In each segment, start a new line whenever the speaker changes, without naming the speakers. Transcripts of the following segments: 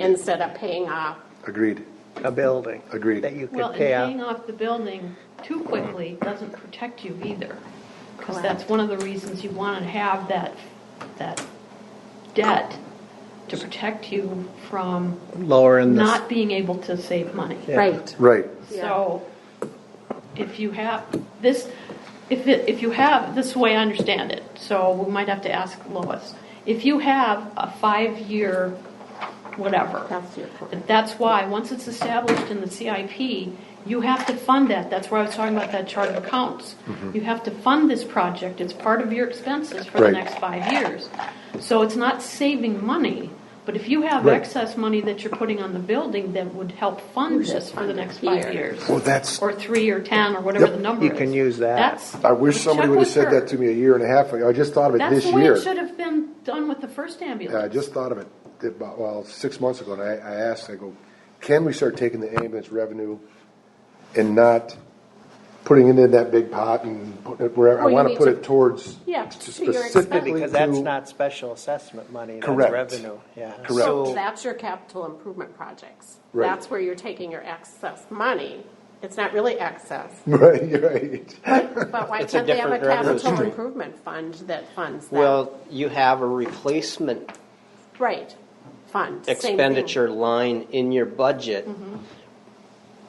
instead of paying off.
Agreed.
a building.
Agreed.
That you could
Well, and
pay
paying
out.
off the building too quickly doesn't protect you either. Because that's
Correct.
one of the reasons you want to have that, that debt to protect you from
Lowering the.
not being able to save money.
Yeah.
Right.
Right.
So if you have this, if, it- if you have, this way I understand it, so we might have to ask Lois. If you have a five-year whatever,
That's your point.
that's why, once it's established in the CIP, you have to fund that. That's where I was talking about that chart of accounts. You have to fund this project. It's part of your expenses for the
Mm-hmm. Right.
next five years. So it's not saving money, but if you have
Right.
excess money that you're putting on the building that would help fund this for the next five years
Well, that's,
or three or ten or whatever the number
You
is.
can use that.
That's-
I wish somebody
check
would have
with
said
her.
that to me a year and a half ago. I just thought of it
That's
this
the way
year.
it should have been done with the first ambulance.
Yeah, I just thought of it, about, well, six months ago, and I, I asked, I go, can we start taking the ambulance revenue and not putting it in that big pot and putting it wherever, I
Well, you
wanna
need
put
to-
it towards
Yeah, to your
specifically
expense.
Because that's
to-
not special assessment money, that's
Correct.
revenue, yeah.
Correct.
So
So-
that's your capital improvement projects.
Right.
That's where you're taking your excess money. It's not really excess,
Right, you're right.
but why
It's a
can't they have a
different revenue
capital
stream.
improvement fund that funds that?
Well, you have a replacement
Right, fund, same thing.
expenditure line in your budget.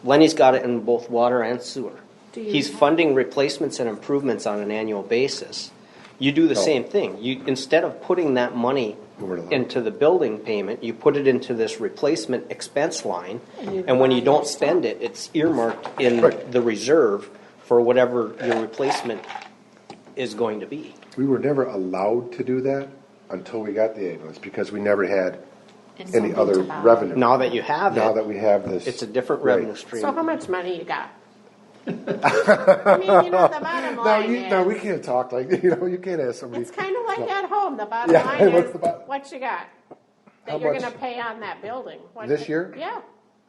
Lenny's got it in both water and sewer.
Do you
He's
have-
funding replacements and improvements on an annual basis. You do the
No.
same thing. You, instead of putting that money
Over to the-
into the building payment, you put it into this replacement expense line.
And you
And when you
buy
don't
it.
spend it, it's earmarked in
Right.
the reserve for whatever your replacement is going to be.
We were never allowed to do that until we got the ambulance, because we never had
And
any
something
other
to buy.
revenue.
Now that you have
Now
it,
that we have this.
it's a different
Right.
revenue stream.
So how much money you got? I mean, you know, the bottom
No,
line
you, no, we
is,
can't talk like, you know, you can't ask somebody.
it's kind of like at home, the bottom
Yeah,
line
what's
is,
the bot-
what you got?
How
That you're
much-
gonna pay on that building. What
This
the-
year?
Yeah.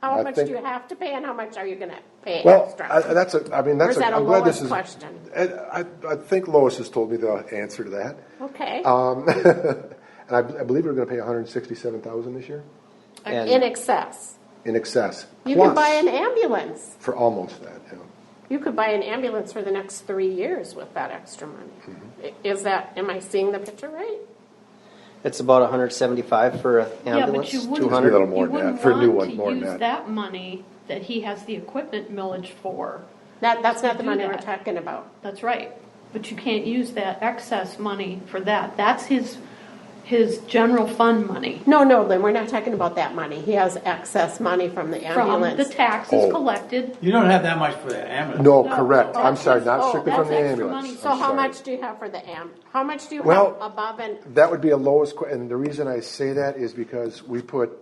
How
I
much do
think-
you have to pay and how much are you gonna pay
Well,
extra?
I- that's a, I mean,
Or
that's
is
a,
that a
I'm glad this
Lois
is.
question?
I, I, I think Lois has told me the answer to that.
Okay,
Um, and I, I believe we're gonna pay hundred and sixty-seven thousand this year
And-
in excess.
in excess.
You could
Plus,
buy an ambulance.
For almost that, yeah.
You could buy an ambulance for the next three years with that extra money.
Mm-hmm.
I- Is that, am I seeing the picture right?
It's about 175 for an
Yeah,
ambulance,
but you wouldn't-
200.
little more
you
than that,
wouldn't
for a new
want
one, more than
to
that.
use that money that he has the equipment millage for.
That, that's not the
Do
money we're
that.
talking about.
That's right. But you can't use that excess money for that. That's his, his general fund money
No, no, Lynn, we're not talking about that money. He has excess money from the
from the
ambulance.
taxes
Oh.
collected.
You don't have that much for the ambulance.
No,
No,
correct.
oh,
I'm sorry, not
oh,
strictly from
that's
the
extra
ambulance.
money.
So
I'm
how
sorry.
much do you have for the am, how much do you have
Well-
above and,
That would be a lowest, que- and the reason I say that is because we put,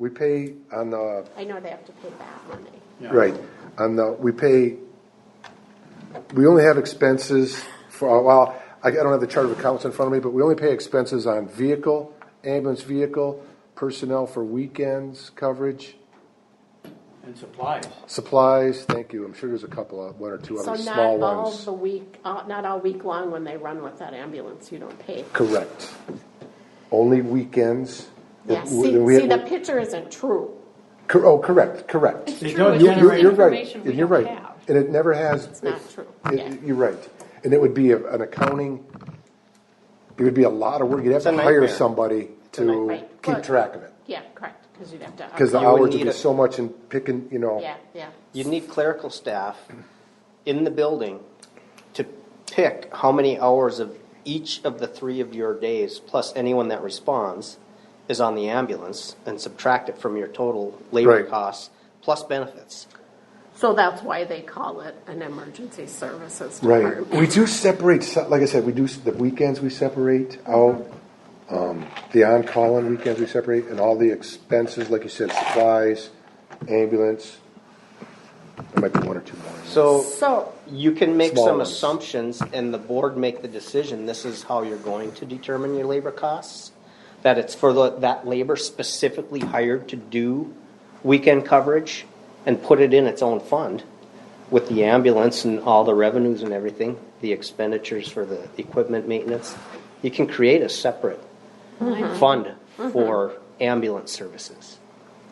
we pay on the,
I know they have to pay that money.
Yeah.
right, on the, we pay, we only have expenses for, uh, well, I I don't have the chart of accounts in front of me, but we only pay expenses on vehicle, ambulance vehicle, personnel for weekends coverage,
And supplies.
supplies, thank you, I'm sure there's a couple, of one or two
So
other
not
small
all
ones.
the week, uh, not all week long when they run with that ambulance, you don't pay.
Correct. Only weekends.
Yeah,
We-
see,
we-
see, the picture isn't true.
Cor- Oh, correct, correct.
It's
They
true,
don't
it's
You're,
generate-
you're,
just
you're right.
information we
And you're
don't
right.
have.
And it never has.
It's not true.
It-
Yeah.
You're right. And it would be a, an accounting, it would be a lot of work. You'd have
a
to hire
nightmare.
somebody to
Right.
keep
Well-
track of it.
Yeah, correct, because you'd have to.
Because the
You would
hours would
need
be
a-
so much in picking, you know.
Yeah, yeah.
You'd need clerical staff in the building to pick how many hours of each of the three of your days, plus anyone that responds, is on the ambulance, and subtract it from your total labor
Right.
costs, plus benefits.
So that's why they call it an emergency services
Right.
department.
We do separate, so- like I said, we do, s- the weekends we separate out. Um, The on-call on weekends we separate and all the expenses, like you said, supplies, ambulance. There might be one or two more.
So
So,
you can make
Small
some
ones.
assumptions, and the board make the decision, this is how you're going to determine your labor costs, that it's for the- that labor specifically hired to do weekend coverage, and put it in its own fund with the ambulance and all the revenues and everything, the expenditures for the equipment maintenance. You can create a separate fund for ambulance services.